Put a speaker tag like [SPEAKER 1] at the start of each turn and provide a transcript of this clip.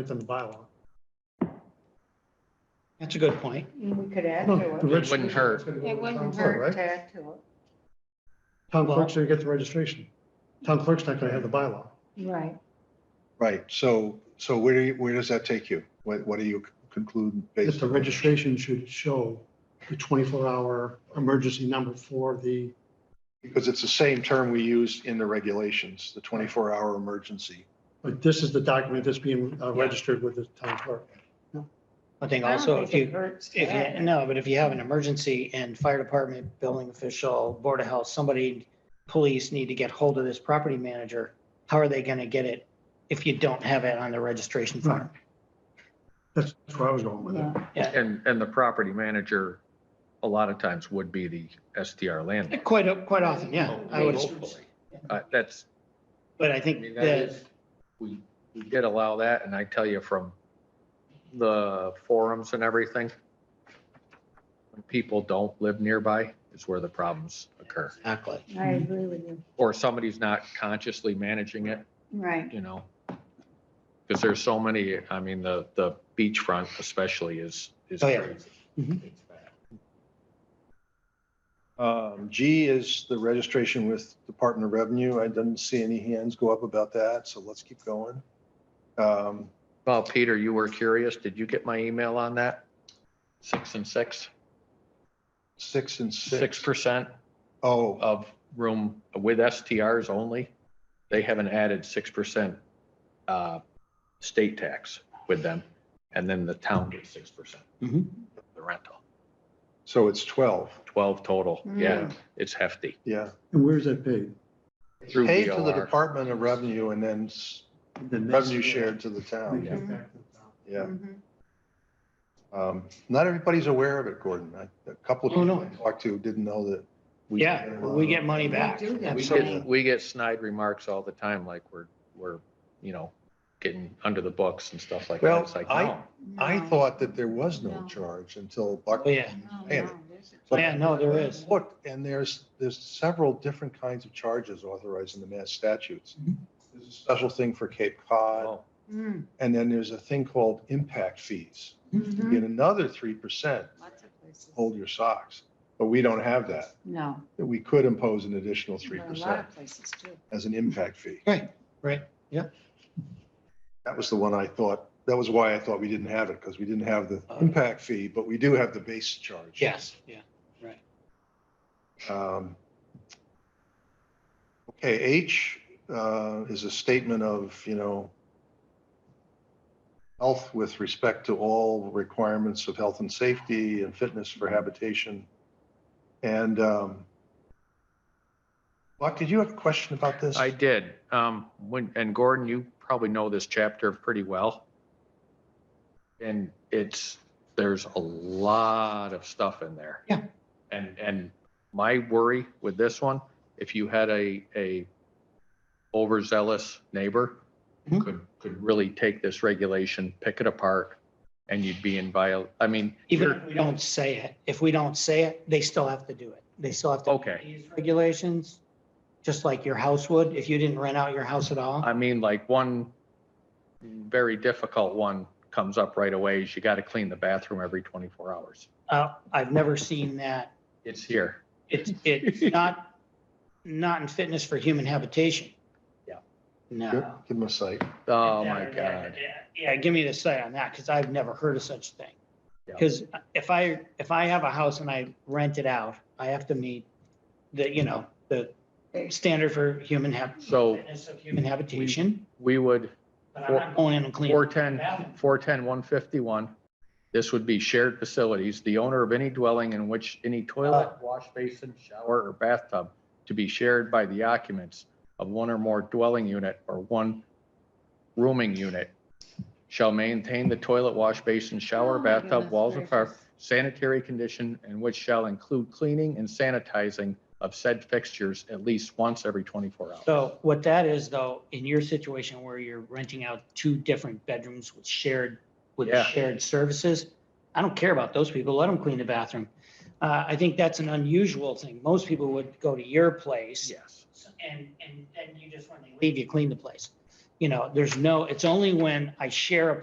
[SPEAKER 1] It's in the bylaw.
[SPEAKER 2] That's a good point.
[SPEAKER 3] We could add to
[SPEAKER 1] Hmm.
[SPEAKER 3] it.
[SPEAKER 4] It wouldn't hurt.
[SPEAKER 3] It wouldn't hurt to add to it.
[SPEAKER 1] Town clerk's gonna get the registration. Town clerk's not gonna have the bylaw.
[SPEAKER 3] Right.
[SPEAKER 5] Right, so, so where do you, where does that take you? What, what do you conclude
[SPEAKER 1] If
[SPEAKER 5] based
[SPEAKER 1] the
[SPEAKER 5] on?
[SPEAKER 1] registration should show the twenty-four hour emergency number for the,
[SPEAKER 5] Because it's the same term we used in the regulations, the twenty-four hour emergency.
[SPEAKER 1] but this is the document that's being uh, registered with the town clerk.
[SPEAKER 2] I think
[SPEAKER 3] I don't
[SPEAKER 2] also
[SPEAKER 3] think
[SPEAKER 2] if
[SPEAKER 3] it
[SPEAKER 2] you,
[SPEAKER 3] hurts to
[SPEAKER 2] if you,
[SPEAKER 3] add.
[SPEAKER 2] no, but if you have an emergency and fire department, building official, board of health, somebody, police need to get hold of this property manager, how are they gonna get it if you don't have it on the registration form?
[SPEAKER 1] That's that's where I was going with it.
[SPEAKER 3] Yeah.
[SPEAKER 4] And, and the property manager, a lot of times would be the SDR landlord.
[SPEAKER 2] Quite, quite often, yeah, I would, assume.
[SPEAKER 4] Hopefully. Uh, that's,
[SPEAKER 2] but I
[SPEAKER 4] I mean,
[SPEAKER 2] think
[SPEAKER 4] that
[SPEAKER 2] that,
[SPEAKER 4] is, we, we did allow that, and I tell you from the forums and everything, when people don't live nearby, is where the problems occur.
[SPEAKER 2] exactly.
[SPEAKER 3] I agree with you.
[SPEAKER 4] Or somebody's not consciously managing it,
[SPEAKER 3] Right.
[SPEAKER 4] you know? Because there's so many, I mean, the, the beachfront especially is, is
[SPEAKER 2] Oh, yeah.
[SPEAKER 4] crazy.
[SPEAKER 2] Mhm.
[SPEAKER 4] It's bad.
[SPEAKER 5] Um, G is the registration with Department of Revenue. I didn't see any hands go up about that, so let's keep going. Um,
[SPEAKER 4] Well, Peter, you were curious. Did you get my email on that? Six and six,
[SPEAKER 5] six and
[SPEAKER 4] six
[SPEAKER 5] six.
[SPEAKER 4] percent
[SPEAKER 5] Oh,
[SPEAKER 4] of room with STRs only. They haven't added six percent uh state tax with them. And then the town gets six percent.
[SPEAKER 2] Mhm.
[SPEAKER 5] Mm-hmm.
[SPEAKER 4] The rental,
[SPEAKER 5] so it's twelve,
[SPEAKER 4] twelve total. Yeah,
[SPEAKER 3] Mm.
[SPEAKER 4] it's hefty.
[SPEAKER 5] yeah.
[SPEAKER 1] And where's that paid?
[SPEAKER 4] Through
[SPEAKER 5] Paid to the
[SPEAKER 4] VOR.
[SPEAKER 5] Department of Revenue and then s-
[SPEAKER 1] Then that's-
[SPEAKER 5] revenue shared to the town,
[SPEAKER 4] Yeah.
[SPEAKER 5] yeah.
[SPEAKER 3] Mhm.
[SPEAKER 5] Um, Not everybody's aware of it, Gordon. I- A couple of
[SPEAKER 2] Oh, no.
[SPEAKER 5] people I talked to didn't know that. we- uh,
[SPEAKER 2] Yeah, we get money back.
[SPEAKER 3] We do that.
[SPEAKER 4] uh, We
[SPEAKER 2] Absolutely.
[SPEAKER 4] get, we get snide remarks all the time, like we're, we're, you know, getting under the books and stuff like
[SPEAKER 5] Well,
[SPEAKER 4] that. It's like,
[SPEAKER 5] I-
[SPEAKER 4] no.
[SPEAKER 5] I
[SPEAKER 3] Mm-hmm. No.
[SPEAKER 5] thought that there was no
[SPEAKER 3] No.
[SPEAKER 5] charge until
[SPEAKER 2] Oh,
[SPEAKER 5] Buck.
[SPEAKER 2] yeah,
[SPEAKER 3] No,
[SPEAKER 5] Hey.
[SPEAKER 3] no, there's a-
[SPEAKER 2] yeah, no, there is.
[SPEAKER 5] Look, and there's, there's several different kinds of charges authorized in the mass statutes.
[SPEAKER 2] Mhm.
[SPEAKER 5] There's a special thing for Cape Cod,
[SPEAKER 4] Oh,
[SPEAKER 3] Mm,
[SPEAKER 5] and then there's a thing called impact fees. You
[SPEAKER 3] mhm.
[SPEAKER 5] get another three percent,
[SPEAKER 3] Lots of places.
[SPEAKER 5] hold your socks. But we don't have that.
[SPEAKER 3] No.
[SPEAKER 5] We could impose an additional three
[SPEAKER 3] but A lot
[SPEAKER 5] percent
[SPEAKER 3] of places too.
[SPEAKER 5] as an impact fee.
[SPEAKER 2] Right, right, yeah.
[SPEAKER 5] That was the one I thought, that was why I thought we didn't have it, because we didn't have the impact fee, but we do have the base charge.
[SPEAKER 2] Yes, Uh-huh. yeah.
[SPEAKER 5] Um, Okay, H uh, is a statement of, you know, health with respect to all requirements of health and safety and fitness for habitation. And um, Buck, did you have a question about this?
[SPEAKER 4] I did. Um, when, and Gordon, you probably know this chapter pretty well. And it's, there's a lot of stuff in there.
[SPEAKER 2] Yeah.
[SPEAKER 4] And, and my worry with this one, if you had a, a overzealous neighbor,
[SPEAKER 2] Mhm.
[SPEAKER 4] could, could really take this regulation, pick it apart, and you'd be in viol, I mean,
[SPEAKER 2] Even
[SPEAKER 4] you're-
[SPEAKER 2] if we don't say it, if we don't say it, they still have to do it. They still have to.
[SPEAKER 4] Okay.
[SPEAKER 2] These Regulations, just like your house would, if you didn't rent out your house at all.
[SPEAKER 4] I mean, like one very difficult one comes up right away is you got to clean the bathroom every 24 hours.
[SPEAKER 2] Uh, I've never seen that.
[SPEAKER 4] It's here.
[SPEAKER 2] It's, it's not, not in fitness for human habitation.
[SPEAKER 4] Yeah.
[SPEAKER 5] Give
[SPEAKER 2] No.
[SPEAKER 5] give him a site.
[SPEAKER 4] Oh, my God.
[SPEAKER 2] Yeah, give me the site on that, because I've never heard of such thing.
[SPEAKER 4] Yeah.
[SPEAKER 2] Because if I, if I have a house and I rent it out, I have to meet the, you know, the standard for human hab,
[SPEAKER 4] So
[SPEAKER 2] fitness of human habitation.
[SPEAKER 4] we would,
[SPEAKER 2] But I'm not going in and cleaning.
[SPEAKER 4] 410, 410, 151, this would be shared facilities. The owner of any dwelling in which any
[SPEAKER 3] Uh.
[SPEAKER 4] toilet, wash basin, shower, or bathtub to be shared by the occupants of one or more dwelling unit or one rooming unit shall maintain the toilet, wash basin, shower,
[SPEAKER 3] Oh my
[SPEAKER 4] bathtub,
[SPEAKER 3] goodness
[SPEAKER 4] walls or
[SPEAKER 3] gracious.
[SPEAKER 4] par- sanitary condition, and which shall include cleaning and sanitizing of said fixtures at least once every 24 hours.
[SPEAKER 2] So what that is though, in your situation where you're renting out two different bedrooms with shared, with
[SPEAKER 4] Yeah.
[SPEAKER 2] shared services, I don't care about those people. Let them clean the bathroom. Uh, I think that's an unusual thing. Most people would go to your place
[SPEAKER 4] Yes.
[SPEAKER 2] and, and then you just, when they leave, you clean the place. You know, there's no, it's only when I share a